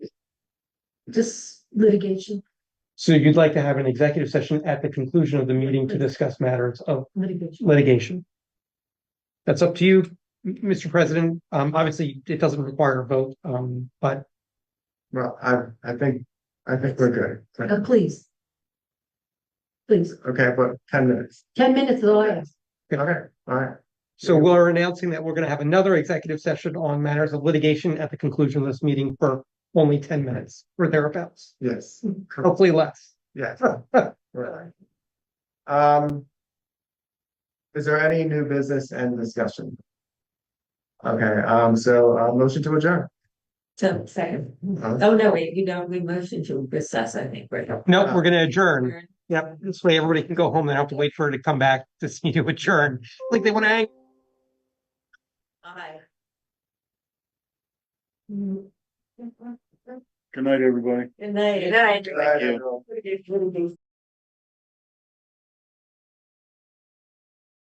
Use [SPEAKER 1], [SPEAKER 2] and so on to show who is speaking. [SPEAKER 1] just litigation,
[SPEAKER 2] So you'd like to have an executive session at the conclusion of the meeting to discuss matters of
[SPEAKER 1] litigation.
[SPEAKER 2] litigation. That's up to you, M- Mr. President. Um, obviously, it doesn't require a vote, um, but
[SPEAKER 3] Well, I, I think, I think we're
[SPEAKER 1] Uh,
[SPEAKER 3] good.
[SPEAKER 1] please. Please,
[SPEAKER 3] Okay, but ten minutes.
[SPEAKER 1] ten minutes is all I ask.
[SPEAKER 3] Okay, all right.
[SPEAKER 2] so we're announcing that we're gonna have another executive session on matters of litigation at the conclusion of this meeting for only ten minutes or thereabouts,
[SPEAKER 3] Yes, correct.
[SPEAKER 2] hopefully less.
[SPEAKER 3] yes. right. Um. Is there any new business and discussion? Okay, um, so, uh, motion to adjourn.
[SPEAKER 4] So, second, oh, no, wait, you know, we motioned to recess, I think, right?
[SPEAKER 2] No, we're gonna adjourn. Yep, this way everybody can go home. They don't have to wait for her to come back to see you adjourn. Like they wanna hang
[SPEAKER 4] Aye.
[SPEAKER 5] Good night, everybody.
[SPEAKER 4] Good night. Good night.
[SPEAKER 3] Thank you.
[SPEAKER 4] Litigation, litigation.